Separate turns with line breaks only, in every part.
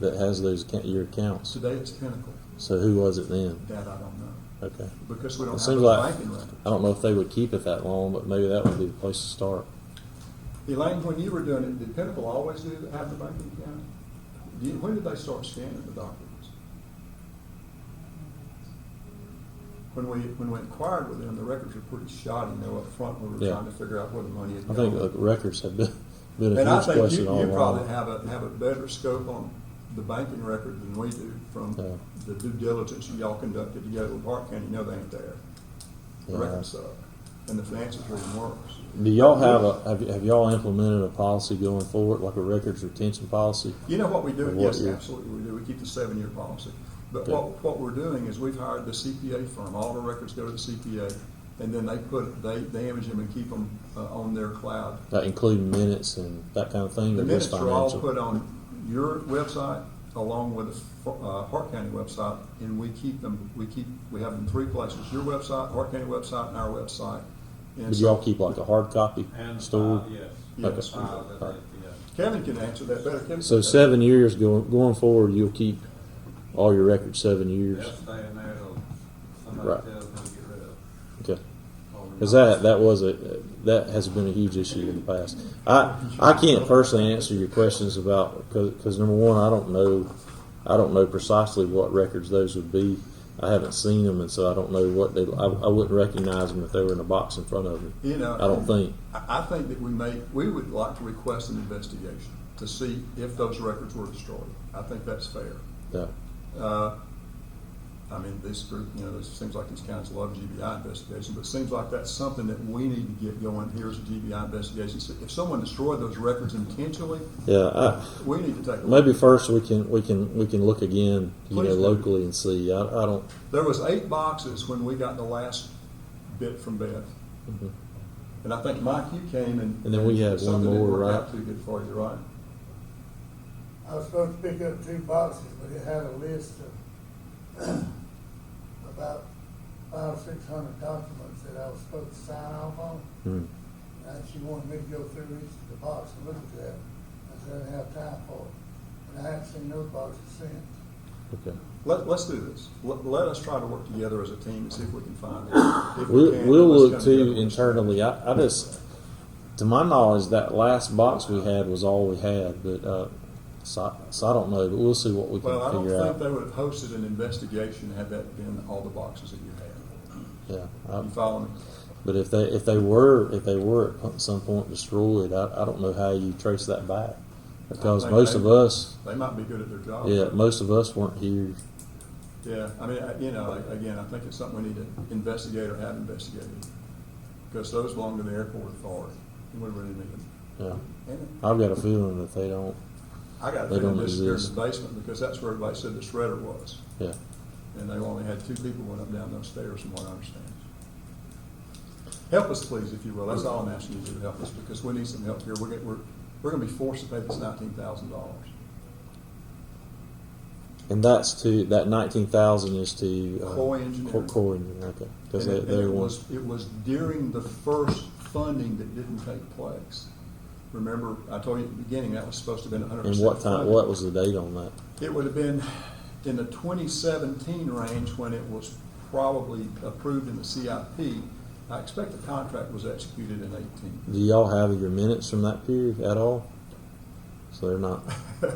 that has those ca- your accounts.
Today it's Pinnacle.
So who was it then?
That I don't know,
Okay.
because we
It
don't have
seems
those
like-
banking records.
I don't know if they would keep it that long, but maybe that would be the place to start.
Elaine, when you were doing it, did Pinnacle always do, have the banking account? Do you- When did they start scanning the documents? When we, when we inquired with them, the records were pretty shoddy, you know, up front, we were
Yeah.
trying to figure out where the money had
I
gone.
think the records have been, been a
And I
huge
think you,
question all
you probably
along.
have a, have a better scope on the banking record than we do from
Yeah.
the due diligence y'all conducted together with Park County, you know they ain't there. The
Yeah.
records up, and the finances are even worse.
Do y'all have a, have, y- have y'all implemented a policy going forward, like a records retention policy?
You know what we do?
Of what
Yes,
year?
absolutely, we do. We keep the seven-year policy. But
Okay.
what, what we're doing is we've hired the CPA firm. All the records go to the CPA, and then they put, they, they image them and keep them uh, on their cloud.
Like including minutes and that kind of thing?
The
or just
minutes are all
financial?
put on your website along with the uh, Hart County website, and we keep them, we keep, we have them three places, your website, Hart County website, and our website. And
Did
so
y'all keep like a hard copy
And uh,
stored?
file, yes.
Yes.
File that
Alright.
they- yeah.
Kevin can answer that better. Kevin.
So seven years going, going forward, you'll keep all your records seven years?
They'll stay in there till somebody
Right.
tells them to get rid of. it.
Okay.
Or we're
Because
not-
that that was a that has been a huge issue in the past. I I can't personally answer your questions about because number one I don't know I don't know precisely what records those would be. I haven't seen them and so I don't know what they. I, I wouldn't recognize them if they were in a box in front of me.
You know,
I don't think.
I, I think that we may, we would like to request an investigation to see if those records were destroyed. I think that's fair.
No.
Uh, I mean, this group, you know, this seems like this council loves GBI investigation, but it seems like that's something that we need to get going. Here's a GBI investigation. So If someone destroyed those records intentionally,
Yeah. I,
we need to take. a look.
maybe first we can we can we can look again you
Please
know
do.
locally and see. I, I don't.
There was eight boxes when we got the last bit from Beth.
Mhm.
And I think, Mike, you came and.
And then we had one
something didn't
more,
work out
right?
Too good for you, right?
I was supposed to pick up two boxes, but it had a list of about five, or six hundred documents that I was supposed to sign off on.
hmm.
And she wanted me to go through each of the boxes and look at that. I said, I didn't have time for it. And I haven't seen those boxes since.
Okay.
Let, let's do this. Let, let us try to work together as a team and see if we can find it. If we
We'll,
can,
we'll
let's
look
come
too
together.
internally. I, I just, to my knowledge, that last box we had was all we had, but, uh, so, so I don't know, but we'll see what we can
Well, I don't
figure
think
out.
they would have hosted an investigation had that been all the boxes that you had.
Yeah. I,
You follow me?
but if they, if they were, if they were at some point destroyed, I, I don't know how you trace that back. Because
I think
most
they-
of us,
They might be good at their job.
yeah, most of us weren't here.
Yeah, I mean, I- you know, like, again, I think it's something we need to investigate or have investigated. Because those belong to the airport authority, and we really need them.
Yeah.
And
I've got a feeling that they don't,
I got a
They
feeling
don't
this is here in
exist.
the basement, because that's where everybody said the shredder was.
yeah.
And they only had two people went up down those stairs, from what I understand. Help us, please, if you will. That's all I'm asking you to do, help us, because we need some help here. We're, get- we're, we're gonna be forced to pay this nineteen thousand dollars.
And that's to, that nineteen thousand is to. uh,
Coy Engineering.
Co- Coy Engineering, okay. Cause
And
they,
it- and
they
it
were,
was, it was during the first funding that didn't take place. Remember, I told you at the beginning, that was supposed to have been hundred
and
percent.
what time, what was the date on that?
It would have been in the twenty seventeen range when it was probably approved in the CIP. I expect the contract was executed in eighteen.
Do y'all have your minutes from that period at all? So they're not.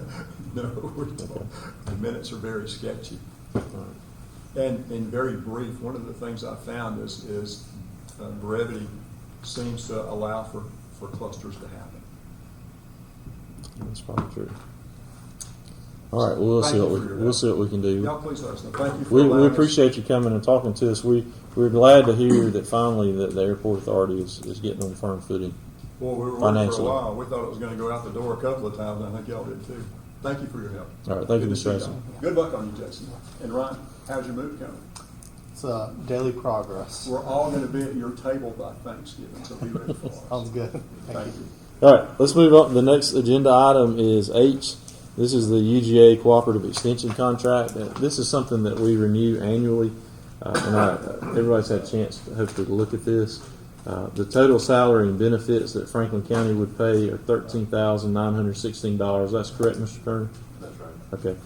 No, we don't. The minutes are very sketchy and, and very brief. One of the things I found is, is uh, brevity seems to allow for, for clusters to happen.
That's probably true. All right, we'll
Thank
see
you
what we
for your
we'll
help.
see what we can
Y'all
do.
please let us know. Thank you for
We, we
allowing us-
appreciate you coming and talking to us. We we're glad to hear that finally that the airport authority is, is getting on firm footing.
Well, we were working for a
financially.
while. We thought it was gonna go out the door a couple of times, and I think y'all did too. Thank you for your help.
All right, thank you,
Good to
Mr.
see y'all.
Jackson.
Good luck on you, Jason. And Ryan, how's your move going?
It's uh, daily progress.
We're all gonna be at your table by Thanksgiving, so be ready for us.
Sounds good. Thank you.
Thank you.
All right, let's move up. The next agenda item is H. This is the UGA Cooperative Extension Contract. Uh, This is something that we renew annually, uh, and I, everybody's had a chance, to hopefully, to look at this. Uh, the total salary and benefits that Franklin County would pay are thirteen thousand nine hundred sixteen dollars. That's correct, Mr. Turner.
That's right.
Okay.